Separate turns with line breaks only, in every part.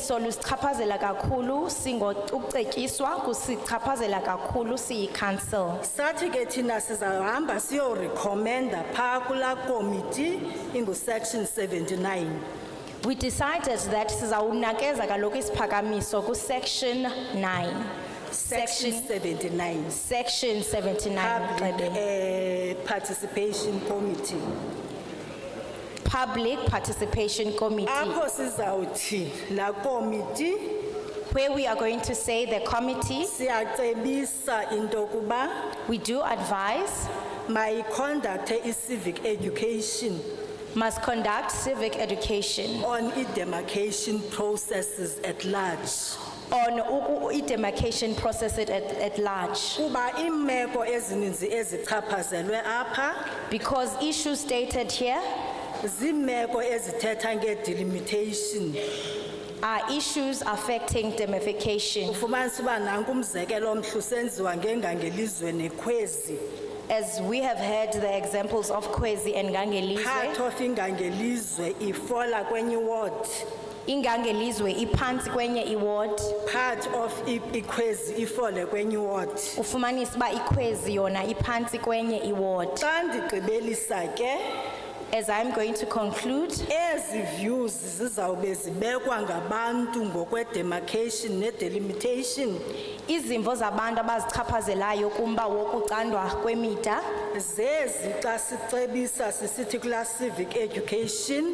so lusichaphazela kakhulu singokucetyiswa kusichaphazela kakhulu siyi-council
sathi ke thina sizahamba siyorekhomenda phaa kulaa komiti ingusection 79
we decided that sizawunakeza kaloku isiphakamiso kusection 9
section
section
79
section 79
public
Mxebe.
eh, participation committee
public participation committee
apho sizawuthi laa komiti
where we are going to say the committee
siyacebisa into yokuba
we do advise
mayiconducte i-civic education
must conduct civic education
on i-demarcation processes at large
on uku- i-demarcation process at, at large
kuba iimeko ezininzi ezichaphazelwe apha
because issues stated here
ziimeko ezithetha ngedelimitation
are issues affecting demification
ufumanisa uba nanku umzekelo omhle usenziwa ngengangelizwe nekhwezi
as we have heard the examples of Kwezi and
part
Gangelizwe
of ingangelizwe ifola kwenye iward
ingangelizwe iphantsi kwenye iward
part of i- ikhwezi ifole kwenye iward
ufumanisa uba iKwezi yona iphantsi kwenye iward
xa ndigqibelisa ke
as i'm going to conclude
ezi views zizawube zibekwa ngabantu ngokwedemarcation nedelimitation
izimvo zabantu abazichaphazelayo kumba wokucandwa kwemida
zezi xa sicebisa sisithi kulaa civic education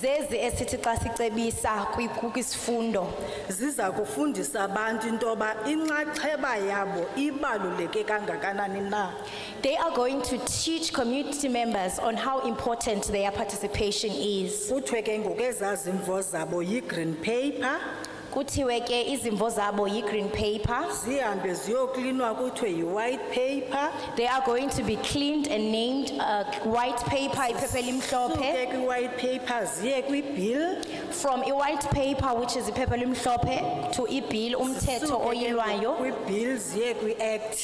zezi esithi xa sicebisa kwi- ku- kwisifundo
ziza kufundisa abantu intoba inxaxheba yabo ibaluleke kangakanani na
they are going to teach community members on how important their participation is
kuthiwe ke ngoku ezazimvo zabo yi-green paper
kuthiwe ke izimvo zabo yi-green paper
zihambe ziyoklinwa kuthiwe yi-white paper
they are going to be cleaned and named uh, white paper iphepha
suke
elimhlophe
kwi-white paper ziye kwibill
from i-white paper which is iphepha elimhlophe to ibill umthetho oyilwayo
kwibill ziye kwi-act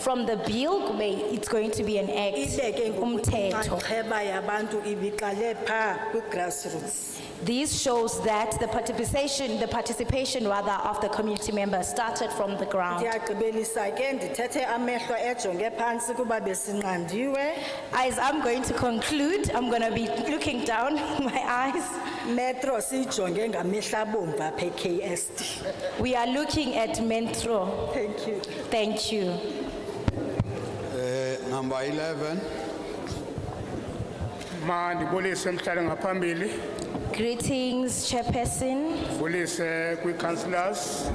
from the bill kube it's going to be an act
ibe ke ngoku
umthetho
inxaxheba yabantu ibiqale phaa kwi-grassroots
This shows that the participation, the participation rather of the community members started from the ground.
ndiyagqibelisa ke ndithethe amehlo ejonge phantsi kuba besinqandiwe
As I'm going to conclude, I'm going to be looking down my eyes.
Metro sijonge ngamehla bomvu apha e-KSD.
We are looking at Metro.
Thank you.
Thank you.
Number 11,
mandibulise mhlale ngaphambili
Greetings, Chairperson.
ndibulise kwii-councillors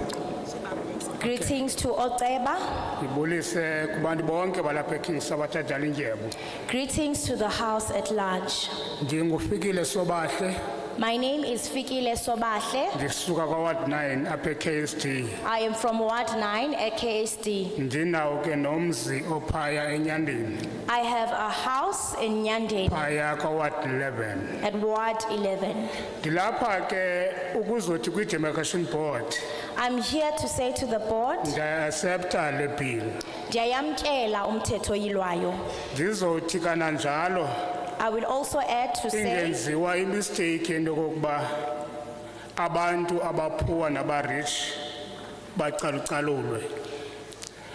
Greetings to Oteba.
ndibulise kubantu bonke balapha ekings abatshajala indyebu
Greetings to the house at large.
ndingufikile sobahle
My name is Fikile Sobahle.
ndisuka kwaward 9 apha e-ksd
I am from Ward 9 at KSD.
ndinawo ke nomzi ophaya enyandeni
I have a house in Nyandeni
phaya kwaward 11
at Ward 11.
ndilapha ke ukuzothi kwi-demarcation board
I'm here to say to the board,
ndiyayiasepta le bill
ndiyayamkela umthetho oyilwayo.
ndizothi kananjalo
I will also add to say,
ingenziwa imisteyikhi into yokokuba abantu abaphuwa nabarich bacalucalulwe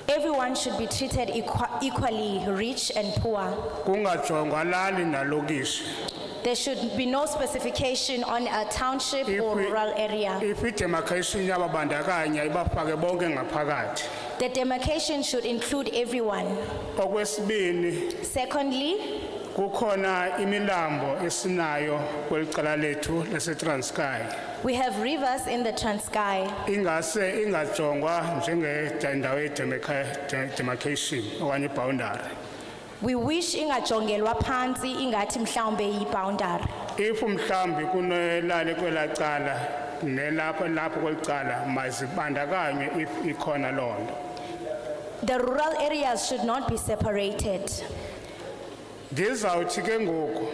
everyone should be treated equa- equally, rich and poor.
kungajongwa lali nalokishi
There should be no specification on a township or
If we-
rural area.
if idemarcation yababandakanya ibafake bonke ngaphakathi
The demarcation should include everyone.
okwesibini
Secondly,
kukhona imilambo esinayo kweli cala lethu lasetranskay
we have rivers in the Transkei.
ingase ingajongwa njengendawo yedemarcation okanye ibhawundari
We wish ingajongelwa phansi ingathi mhlawumbe yiboundary.
if mhlambi kunelali kwelacala nelapho lapho kwelicala mazibandakanywe if ikhona loo nto
The rural areas should not be separated.
ndizawuthi ke ngoku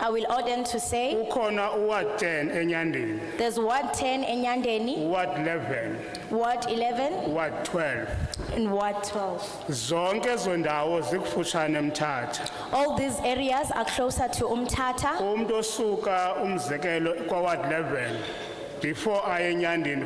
I will order to say,
ukhona uward 10 enyandeni
There's Ward 10 Enyandeni,
uward 11
Ward 11
uward 12
and Ward 12.
zonke ezo ndawo zikufutshane mthatha
All these areas are closer to Umtata.
umntu osuka umzekelo kwaward 11 before aye enyandeni